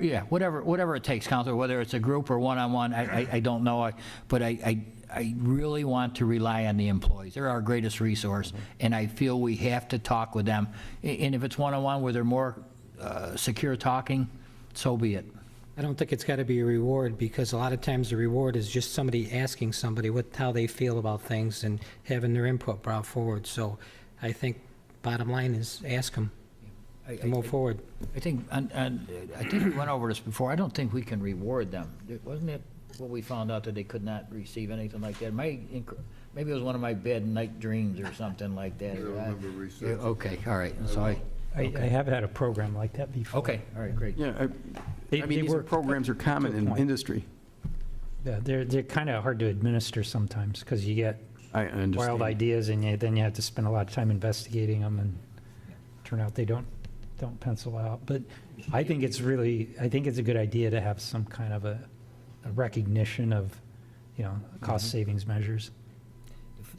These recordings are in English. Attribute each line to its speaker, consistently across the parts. Speaker 1: Yeah, whatever, whatever it takes, Counselor, whether it's a group or one-on-one, I, I, I don't know, I- but I, I, I really want to rely on the employees. They're our greatest resource, and I feel we have to talk with them. A- And if it's one-on-one where they're more, uh, secure talking, so be it.
Speaker 2: I don't think it's got to be a reward, because a lot of times the reward is just somebody asking somebody what, how they feel about things and having their input brought forward. So I think bottom line is ask them
Speaker 1: I-
Speaker 2: and move forward.
Speaker 1: I think, and, and I think we went over this before, I don't think we can reward them. Wasn't it what we found out that they could not receive anything like that? My, inc- maybe it was one of my bad night dreams or something like that.
Speaker 3: I don't remember research.
Speaker 1: Yeah, Okay, all right, so I,
Speaker 4: I, I have had a program like that before.
Speaker 1: okay, all right, great.
Speaker 5: Yeah, I,
Speaker 4: They-
Speaker 5: I
Speaker 4: they
Speaker 5: mean, these are
Speaker 4: work-
Speaker 5: programs are common in
Speaker 4: Good point.
Speaker 5: industry.
Speaker 4: Yeah, They're, they're kind of hard to administer sometimes because you get
Speaker 5: I I understand.
Speaker 4: wild ideas and you- then you have to spend a lot of time investigating them and turn out they don't, don't pencil out. But I think it's really, I think it's a good idea to have some kind of a a recognition of, you know,
Speaker 5: Mm-hmm.
Speaker 4: cost savings measures.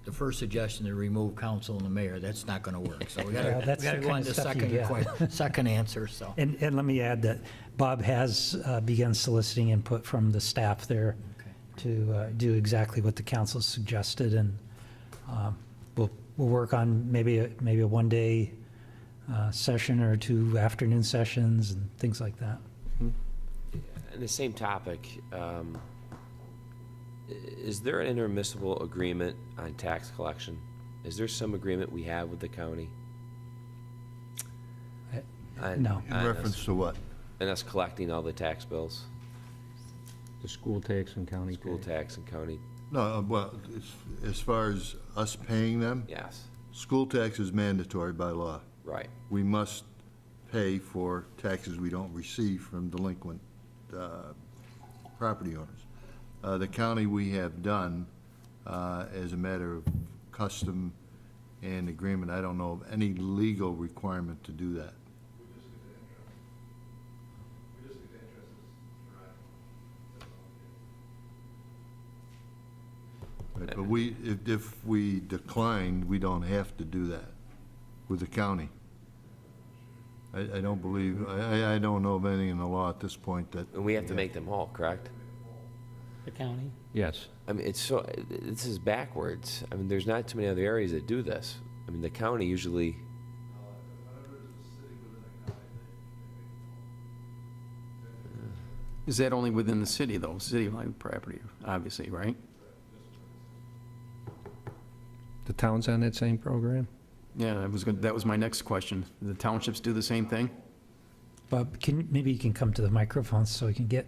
Speaker 1: The first suggestion to remove council and the mayor, that's not going to work. So we got
Speaker 4: Yeah,
Speaker 1: to,
Speaker 4: that's
Speaker 1: we got to
Speaker 4: the
Speaker 1: go
Speaker 4: kind
Speaker 1: on
Speaker 4: of
Speaker 1: to
Speaker 4: stuff you
Speaker 1: second,
Speaker 4: get.
Speaker 1: que- second answer, so.
Speaker 4: And, and let me add that Bob has uh, begun soliciting input from the staff there
Speaker 1: Okay.
Speaker 4: to uh, do exactly what the council suggested, and um, we'll, we'll work on maybe, a- maybe a one-day uh, session or two afternoon sessions and things like that.
Speaker 6: On the same topic, um, i- is there an intermissible agreement on tax collection? Is there some agreement we have with the county?
Speaker 4: I-
Speaker 6: On-
Speaker 4: No.
Speaker 3: In
Speaker 6: on us-
Speaker 3: reference to what?
Speaker 6: And us collecting all the tax bills,
Speaker 7: The school tax and county
Speaker 6: school
Speaker 7: tax.
Speaker 6: tax and county,
Speaker 3: No, uh, well, as- as far as us paying them,
Speaker 6: yes,
Speaker 3: school tax is mandatory by law.
Speaker 6: right.
Speaker 3: We must pay for taxes we don't receive from delinquent uh, property owners. Uh, The county we have done uh, as a matter of custom and agreement. I don't know of any legal requirement to do that. Right, But we, if, if we decline, we don't have to do that with the county. I, I don't believe, I, I- I don't know of anything in the law at this point that.
Speaker 6: And we have to make them whole, correct?
Speaker 2: The county?
Speaker 7: Yes.
Speaker 6: I mean, it's so, this is backwards. I mean, there's not too many other areas that do this. I mean, the county usually,
Speaker 5: Is that only within the city, though? City-owned property, obviously, right?
Speaker 7: The town's on that same program?
Speaker 5: Yeah, that was, good- that was my next question. The townships do the same thing?
Speaker 4: Bob, can, maybe you can come to the microphone so we can get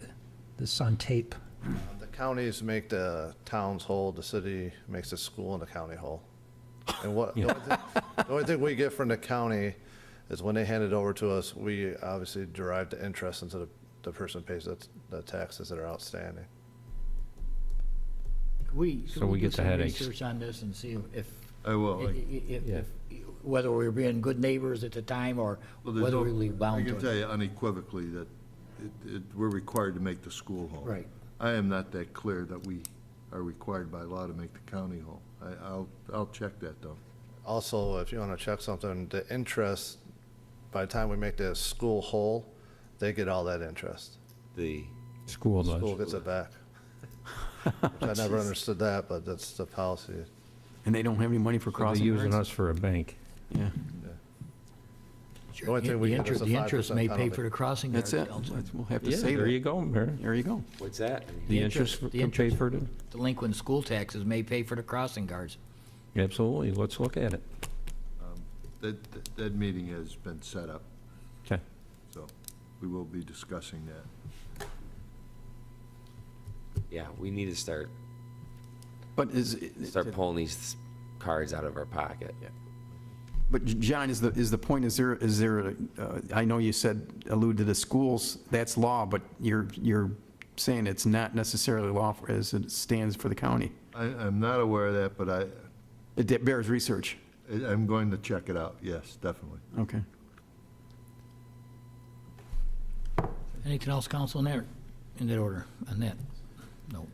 Speaker 4: this on tape.
Speaker 8: The counties make the towns whole, the city makes the school and the county whole. And what, the only thing- the only thing we get from the county is when they hand it over to us, we obviously derive the interest into the, the person pays the, the taxes that are outstanding.
Speaker 1: We,
Speaker 7: So
Speaker 1: could
Speaker 7: we
Speaker 1: we do
Speaker 7: get the
Speaker 1: some
Speaker 7: headaches.
Speaker 1: research on this and see if,
Speaker 3: I
Speaker 1: i- i-
Speaker 3: will. I-
Speaker 1: if, if, whether we were being good neighbors at the time or
Speaker 3: Well, there's
Speaker 1: whether
Speaker 3: no-
Speaker 1: we leave bound
Speaker 3: I
Speaker 1: to
Speaker 3: can
Speaker 1: it.
Speaker 3: tell you unequivocally that it- it- we're required to make the school whole.
Speaker 1: Right.
Speaker 3: I am not that clear that we are required by law to make the county whole. I, I'll, I'll check that, though.
Speaker 8: Also, if you want to check something, the interest, by the time we make the school whole, they get all that interest.
Speaker 6: the,
Speaker 7: School
Speaker 8: School
Speaker 7: does.
Speaker 8: gets it back. Which I never understood that, but that's the policy.
Speaker 5: And they don't have any money for
Speaker 7: They're
Speaker 5: crossing
Speaker 7: using
Speaker 5: guards?
Speaker 7: us for a bank.
Speaker 5: Yeah,
Speaker 8: The only thing we
Speaker 1: The
Speaker 8: get
Speaker 1: inter-
Speaker 8: is a
Speaker 1: the interest
Speaker 8: 5%
Speaker 1: may pay
Speaker 8: penalty.
Speaker 1: for the crossing guard,
Speaker 5: that's it.
Speaker 1: Counselor.
Speaker 5: That's- We'll have to
Speaker 7: Yeah,
Speaker 5: say
Speaker 7: there you
Speaker 5: that.
Speaker 7: go, Mayor.
Speaker 5: There you go.
Speaker 6: what's that?
Speaker 7: The
Speaker 1: interest-
Speaker 7: interest
Speaker 1: the
Speaker 7: can pay
Speaker 1: interest-
Speaker 7: for it.
Speaker 1: Delinquent school taxes may pay for the crossing guards.
Speaker 7: Absolutely, let's look at it.
Speaker 3: That, that- that meeting has been set up,
Speaker 7: Okay.
Speaker 3: so we will be discussing that.
Speaker 6: Yeah, we need to start,
Speaker 5: But is, it-
Speaker 6: start pulling these cards out of our pocket.
Speaker 5: but J- John, is the, is the point, is there, is there, a- uh, I know you said, alluded to the schools, that's law, but you're, you're saying it's not necessarily law for- as it stands for the county.
Speaker 3: I, I'm not aware of that, but I,
Speaker 5: It that bears research.
Speaker 3: I- I'm going to check it out, yes, definitely.
Speaker 5: Okay.
Speaker 1: Anything else, council, in that, in that order, on that? No.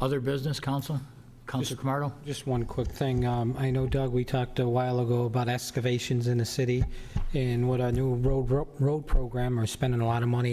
Speaker 1: Other business, council? Council Camardo?
Speaker 2: Just one quick thing. Um, I know, Doug, we talked a while ago about excavations in the city, and with our new road, road program, we're spending a lot of money